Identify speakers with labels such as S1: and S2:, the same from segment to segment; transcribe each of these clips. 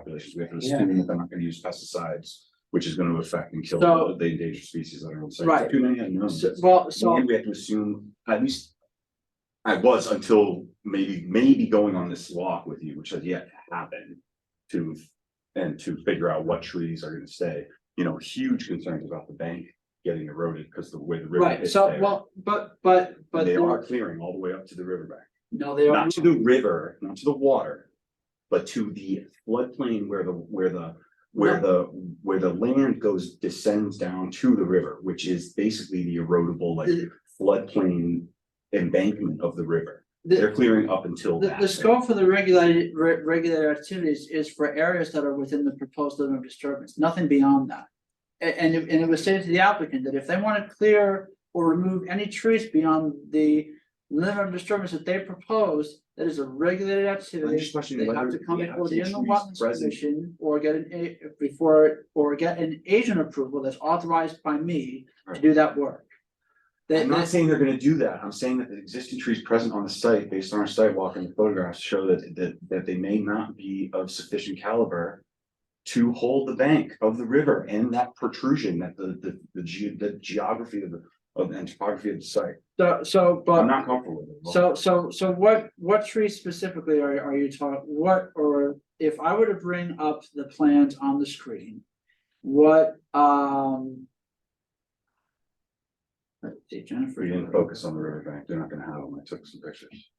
S1: populations. We have to
S2: Yeah.
S1: assume that they're not gonna use pesticides, which is gonna affect and kill
S2: So-
S1: the the endangered species on our own site.
S2: Right.
S1: Too many unknowns.
S2: So- Well,
S1: So
S2: so,
S1: we have to assume, at least. I was until maybe, maybe going on this walk with you, which has yet to happen. To, and to figure out what trees are gonna stay, you know, huge concerns about the bank getting eroded because the way the river
S2: right,
S1: is
S2: so,
S1: there.
S2: well, but, but, but.
S1: And they
S2: there-
S1: are clearing all the way up to the riverbank,
S2: No, they are,
S1: not to the river, not to the water. But to the floodplain where the, where the, where the, where the land goes descends down to the river, which is basically the erodible like
S2: the,
S1: floodplain embankment of the river. They're
S2: the,
S1: clearing up until
S2: the-
S1: that.
S2: the scope for the regulated, re- regulated activities is for areas that are within the proposed limit of disturbance, nothing beyond that. A- And, it- and it was stated to the applicant that if they want to clear or remove any trees beyond the limit of disturbance that they proposed, that is a regulated
S1: I'm
S2: activity.
S1: just questioning
S2: They have
S1: whether
S2: to come
S1: the
S2: before the
S1: application
S2: inland
S1: is
S2: wetlands
S1: present.
S2: commission or get an, a- before, or get an agent approval that's authorized by me to
S1: Right.
S2: do that work. That,
S1: I'm not
S2: that's,
S1: saying they're gonna do that. I'm saying that the existing trees present on the site, based on our sidewalk and the photographs, show that, that, that they may not be of sufficient caliber to hold the bank of the river and that protrusion that the, the, the ge- the geography of the, of, and topography of the site.
S2: so- so,
S1: I'm
S2: but,
S1: not comfortable with it.
S2: so, so, so what, what trees specifically are, are you talking, what, or if I were to bring up the plans on the screen, what, um. Let's see, Jennifer.
S1: We didn't focus on the riverbank. They're not gonna have them. I took some pictures.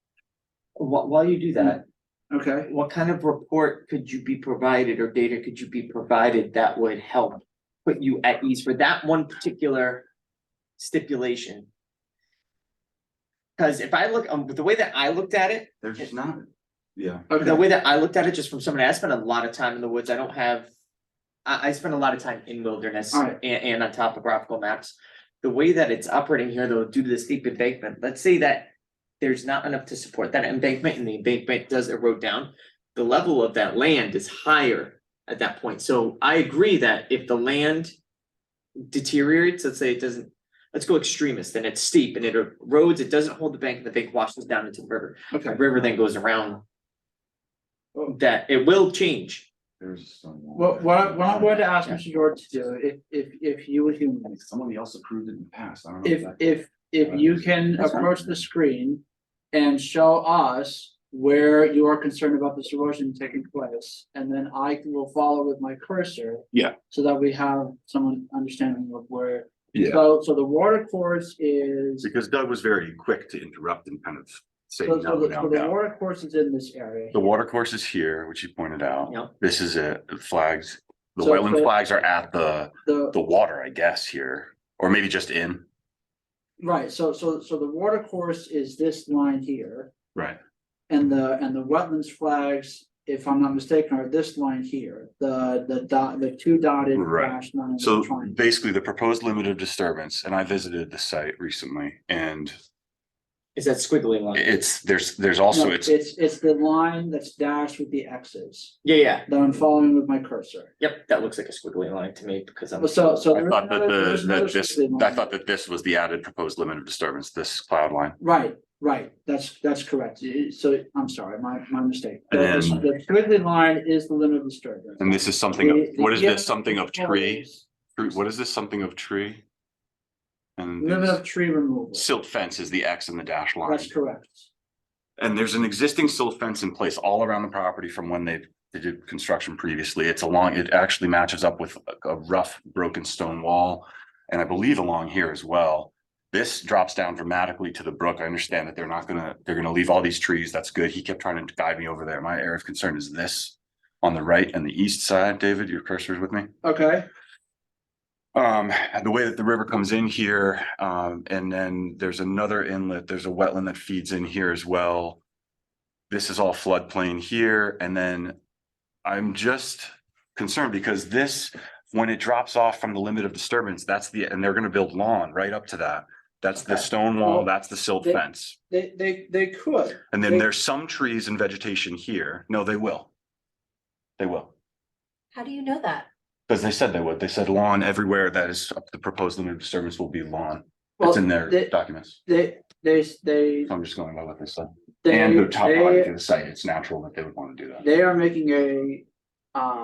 S3: While, while you do that,
S2: Okay,
S3: what kind of report could you be provided or data could you be provided that would help put you at ease for that one particular stipulation? Cause if I look, um, the way that I looked at it,
S1: They're just not, yeah.
S3: the
S2: okay,
S3: way that I looked at it, just from someone, I spent a lot of time in the woods, I don't have. I, I spend a lot of time in wilderness
S2: Alright.
S3: and, and on topographical maps. The way that it's operating here though, due to the steep embankment, let's say that. There's not enough to support that embankment and the embankment does erode down. The level of that land is higher at that point, so I agree that if the land. Deteriorates, let's say it doesn't, let's go extremist, then it's steep and it erodes, it doesn't hold the bank and the bank washes down into the river. The
S2: okay,
S3: river then goes around that it will change.
S1: There's some.
S2: what, what, I- what I'm going to ask Mr. George to do, if, if, if you would humor me.
S1: Someone else approved it in the past, I don't know.
S2: If,
S1: that-
S2: if, if you can
S3: That's fine.
S2: approach the screen and show us where you are concerned about this erosion taking place, and then I will follow with my cursor.
S1: Yeah.
S2: So that we have someone understanding of where.
S1: Yeah.
S2: So, so the water course is,
S1: Because Doug was very quick to interrupt and kind of say
S2: so,
S1: no,
S2: so the,
S1: no,
S2: so the
S1: no.
S2: water course is in this area.
S1: The water course is here, which you pointed out.
S3: Yep.
S1: This is it, the flags, the
S2: So
S1: wetland
S2: the-
S1: flags are at the,
S2: The,
S1: the water, I guess, here, or maybe just in.
S2: right, so, so, so the water course is this line here.
S1: Right.
S2: And the, and the wetlands flags, if I'm not mistaken, are this line here, the, the dot, the two dotted
S1: Right.
S2: dash line.
S4: So
S2: triangle.
S4: basically, the proposed limit of disturbance, and I visited the site recently, and
S3: Is that squiggly line?
S4: it's, there's, there's also,
S2: No,
S4: it's,
S2: It's, it's the line that's dashed with the X's
S3: Yeah, yeah,
S2: that I'm following with my cursor.
S3: yep, that looks like a squiggly line to me because I'm.
S2: Well, So, so.
S4: I
S2: there is
S4: thought that
S2: another- there
S4: the,
S2: is another
S4: that this,
S2: squiggly line.
S4: I thought that this was the added proposed limit of disturbance, this cloud line.
S2: Right, right, that's, that's correct. Eh, So I'm sorry, my, my mistake. The-
S4: And-
S2: The squiggly line is the limit of disturbance.
S4: And this is something, of
S2: The- the
S4: what is
S2: yellow
S4: this, something of tree?
S2: is
S4: Tree- What is this, something of tree? And
S2: Limit of
S4: this-
S2: tree removal.
S4: silt fence is the X in the dash line.
S2: That's correct.
S4: And there's an existing silt fence in place all around the property from when they, they did construction previously. It's along, it actually matches up with a- a rough broken stone wall. And I believe along here as well. This drops down dramatically to the brook. I understand that they're not gonna, they're gonna leave all these trees. That's good. He kept trying to guide me over there. My area of concern is this on the right and the east side. David, your cursor's with me?
S2: Okay,
S4: Um, the way that the river comes in here, um, and then there's another inlet, there's a wetland that feeds in here as well. This is all floodplain here, and then I'm just concerned because this, when it drops off from the limit of disturbance, that's the, and they're gonna build lawn right up to that. That's the
S2: Okay.
S4: stone
S2: Well,
S4: wall, that's the silt
S2: they-
S4: fence,
S2: they, they, they could.
S4: and
S2: they-
S4: then there's some trees and vegetation here. No, they will. They will.
S5: How do you know that?
S4: Because they said they would. They said lawn everywhere that is up the proposed limit of disturbance will be lawn.
S2: Well,
S4: It's in their
S2: they-
S4: documents.
S2: They, they, they,
S4: So I'm just going by what they said.
S2: they,
S4: And the top
S2: they,
S4: topography of the site, it's natural that they would want to do that.
S2: they are making a, um.